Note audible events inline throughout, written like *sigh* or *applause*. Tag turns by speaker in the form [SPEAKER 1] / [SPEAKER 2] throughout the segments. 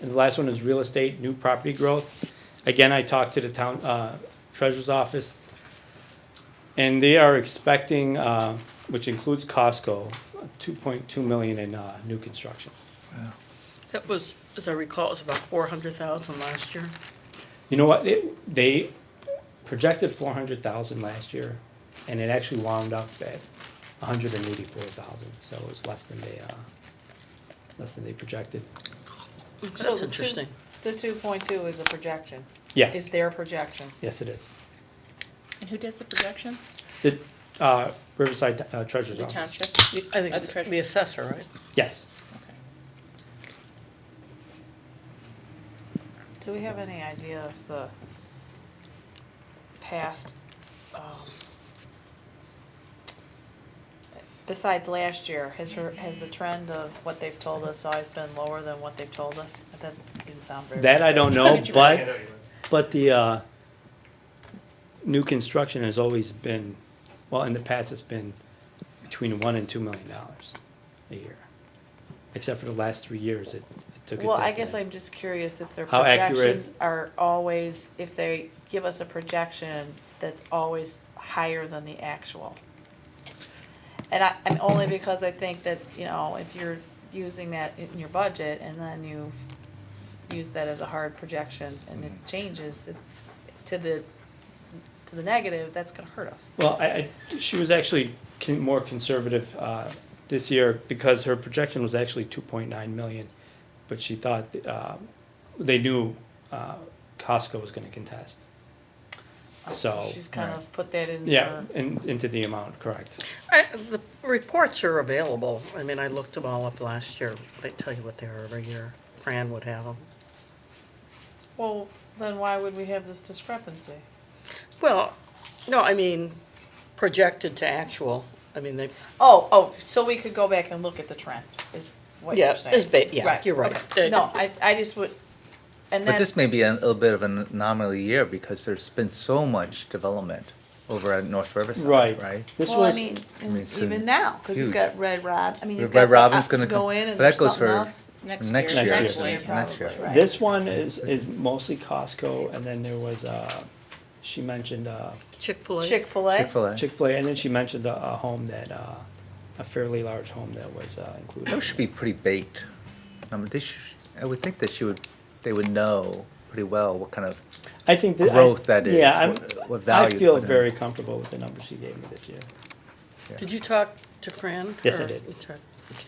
[SPEAKER 1] And the last one is real estate, new property growth. Again, I talked to the town uh, treasurer's office. And they are expecting, uh, which includes Costco, two point two million in uh, new construction.
[SPEAKER 2] That was, as I recall, it was about four hundred thousand last year.
[SPEAKER 1] You know what, It- they projected four hundred thousand last year, and it actually wound up at hundred and eighty-four thousand, so it was less than they, uh, less than they projected.
[SPEAKER 3] So the
[SPEAKER 2] That's
[SPEAKER 3] two-
[SPEAKER 2] interesting.
[SPEAKER 3] The two point two is a projection, is
[SPEAKER 1] Yes,
[SPEAKER 3] their projection.
[SPEAKER 1] yes, it is.
[SPEAKER 4] And who does the projection?
[SPEAKER 1] The uh, Riverside uh, Treasurer's
[SPEAKER 4] The
[SPEAKER 1] Office.
[SPEAKER 4] township?
[SPEAKER 2] I think
[SPEAKER 4] Uh,
[SPEAKER 2] it's
[SPEAKER 4] the treasurer.
[SPEAKER 2] the assessor, right?
[SPEAKER 1] Yes.
[SPEAKER 4] Okay.
[SPEAKER 3] Do we have any idea of the past, um, besides last year, has her, has the trend of what they've told us always been lower than what they've told us? That didn't sound very.
[SPEAKER 1] That I don't
[SPEAKER 3] *laughs*
[SPEAKER 1] know,
[SPEAKER 4] did you
[SPEAKER 1] but, but the, uh, new construction has always been, well, in the past, it's been between one and two million dollars a year. Except for the last three years, it it took a
[SPEAKER 3] Well, I
[SPEAKER 1] dip
[SPEAKER 3] guess
[SPEAKER 1] in.
[SPEAKER 3] I'm just curious if their
[SPEAKER 1] How accurate-
[SPEAKER 3] projections are always, if they give us a projection that's always higher than the actual. And I, I'm only because I think that, you know, if you're using that in your budget and then you use that as a hard projection and it changes, it's to the, to the negative, that's gonna hurt us.
[SPEAKER 1] Well, I, I, she was actually con- more conservative, uh, this year because her projection was actually two point nine million. But she thought, uh, they knew, uh, Costco was gonna contest. So,
[SPEAKER 3] She's kind of put that in
[SPEAKER 1] yeah,
[SPEAKER 3] her,
[SPEAKER 1] and into the amount, correct.
[SPEAKER 2] I, the reports are available. I mean, I looked them all up last year. They tell you what they are every year. Fran would have them.
[SPEAKER 3] well, then why would we have this discrepancy?
[SPEAKER 2] Well, no, I mean, projected to actual. I mean, they,
[SPEAKER 3] Oh, oh, so we could go back and look at the trend, is what
[SPEAKER 2] yeah,
[SPEAKER 3] you're
[SPEAKER 2] it's,
[SPEAKER 3] saying?
[SPEAKER 2] ba- yeah, you're right.
[SPEAKER 3] okay. No, I, I just would, and
[SPEAKER 5] But
[SPEAKER 3] then,
[SPEAKER 5] this may be a little bit of an anomaly year because there's been so much development over at North Riverside,
[SPEAKER 1] Right.
[SPEAKER 5] right?
[SPEAKER 1] This
[SPEAKER 3] well, I
[SPEAKER 1] was,
[SPEAKER 3] mean,
[SPEAKER 5] I mean, it's
[SPEAKER 3] even
[SPEAKER 5] in-
[SPEAKER 3] now, cause you've
[SPEAKER 5] huge.
[SPEAKER 3] got Red Rob, I mean, you've
[SPEAKER 5] Red
[SPEAKER 3] got the
[SPEAKER 5] Robin's
[SPEAKER 3] op
[SPEAKER 5] gonna
[SPEAKER 3] to go
[SPEAKER 5] come-
[SPEAKER 3] in and
[SPEAKER 5] but
[SPEAKER 3] there's
[SPEAKER 5] that goes
[SPEAKER 3] something
[SPEAKER 5] for-
[SPEAKER 3] else.
[SPEAKER 5] Next
[SPEAKER 1] year. Next
[SPEAKER 4] Next year,
[SPEAKER 5] year.
[SPEAKER 4] probably,
[SPEAKER 5] Next year.
[SPEAKER 3] Right.
[SPEAKER 1] this one is, is mostly Costco, and then there was, uh, she mentioned, uh,
[SPEAKER 2] Chick-fil-A.
[SPEAKER 3] Chick-fil-A,
[SPEAKER 5] Chick-fil-A.
[SPEAKER 1] Chick-fil-A, and then she mentioned a, a home that, uh, a fairly large home that was, uh, included.
[SPEAKER 5] Those should be pretty baked. I mean, they sh I would think that she would, they would know pretty well what kind of,
[SPEAKER 1] I think that. I-
[SPEAKER 5] growth that is,
[SPEAKER 1] Yeah, I'm,
[SPEAKER 5] what- what
[SPEAKER 1] I
[SPEAKER 5] value
[SPEAKER 1] feel
[SPEAKER 5] put in.
[SPEAKER 1] very comfortable with the numbers she gave me this year.
[SPEAKER 2] Did you talk to Fran?
[SPEAKER 1] Yes, I
[SPEAKER 2] or-
[SPEAKER 1] did.
[SPEAKER 2] you talked- okay.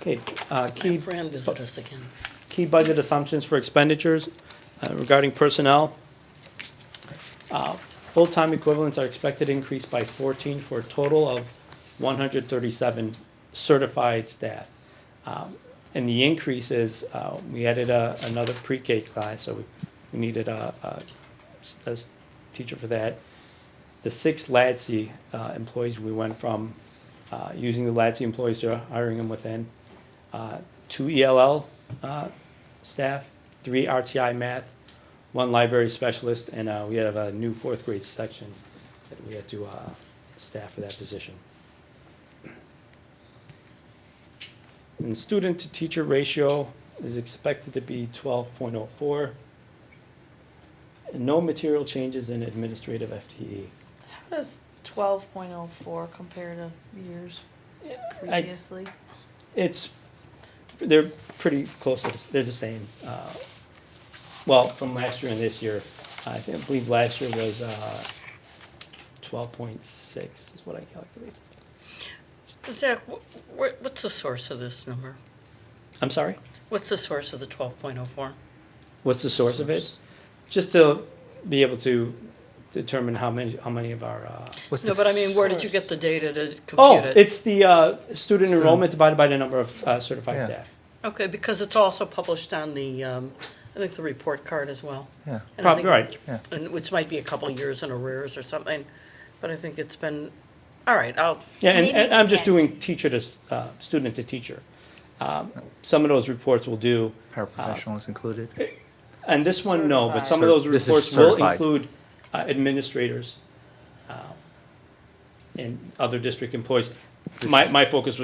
[SPEAKER 1] Okay, uh,
[SPEAKER 2] My
[SPEAKER 1] key,
[SPEAKER 2] Fran visited us again.
[SPEAKER 1] key budget assumptions for expenditures uh, regarding personnel. Uh, Full-time equivalents are expected to increase by fourteen for a total of one hundred thirty-seven certified staff. Um, And the increase is, uh, we added a, another pre-K class, so we- we needed a, a s- a s- teacher for that. The six LADSI uh, employees, we went from uh, using the LADSI employees to hiring them within. Uh, Two ELL uh, staff, three RTI math, one library specialist, and uh, we have a new fourth grade section that we had to uh, staff for that position. And student to teacher ratio is expected to be twelve point oh four. And no material changes in administrative E. FTE.
[SPEAKER 3] how does twelve point oh four compare to years
[SPEAKER 1] I-
[SPEAKER 3] previously?
[SPEAKER 1] It's, they're pretty close, to the s- they're the same. uh, Well, from last year and this year, I think, I believe last year was uh, twelve point six is what I calculated.
[SPEAKER 2] Zach, wh- wh- what's the source of this number?
[SPEAKER 1] I'm sorry,
[SPEAKER 2] What's the source of the twelve point oh four?
[SPEAKER 1] what's the source of it? Just to be able to determine how many, how many of our, uh,
[SPEAKER 5] what's
[SPEAKER 2] No,
[SPEAKER 5] the
[SPEAKER 2] but I mean, where did you get
[SPEAKER 5] source?
[SPEAKER 2] the data to compute it?
[SPEAKER 1] oh, it's the uh, student
[SPEAKER 5] So-
[SPEAKER 1] enrollment divided by the number of uh, certified
[SPEAKER 5] Yeah.
[SPEAKER 1] staff.
[SPEAKER 2] Okay, because it's also published on the, um, I think the report card as well.
[SPEAKER 5] Yeah,
[SPEAKER 2] And I
[SPEAKER 1] Probably,
[SPEAKER 2] think-
[SPEAKER 1] right.
[SPEAKER 5] Yeah.
[SPEAKER 2] And which might be a couple years in arrears or something, but I think it's been, all right, I'll,
[SPEAKER 1] Yeah, and,
[SPEAKER 6] Maybe
[SPEAKER 1] and
[SPEAKER 6] we
[SPEAKER 1] I'm just
[SPEAKER 6] can-
[SPEAKER 1] doing teacher to, s- uh, student to teacher. Um, Some of those reports will do,
[SPEAKER 5] paraprofessionals included.
[SPEAKER 1] and this one, no, but some of
[SPEAKER 5] Certified.
[SPEAKER 1] those
[SPEAKER 5] This is
[SPEAKER 1] reports will
[SPEAKER 5] certified.
[SPEAKER 1] include uh, administrators uh, and other district employees. My, my focus was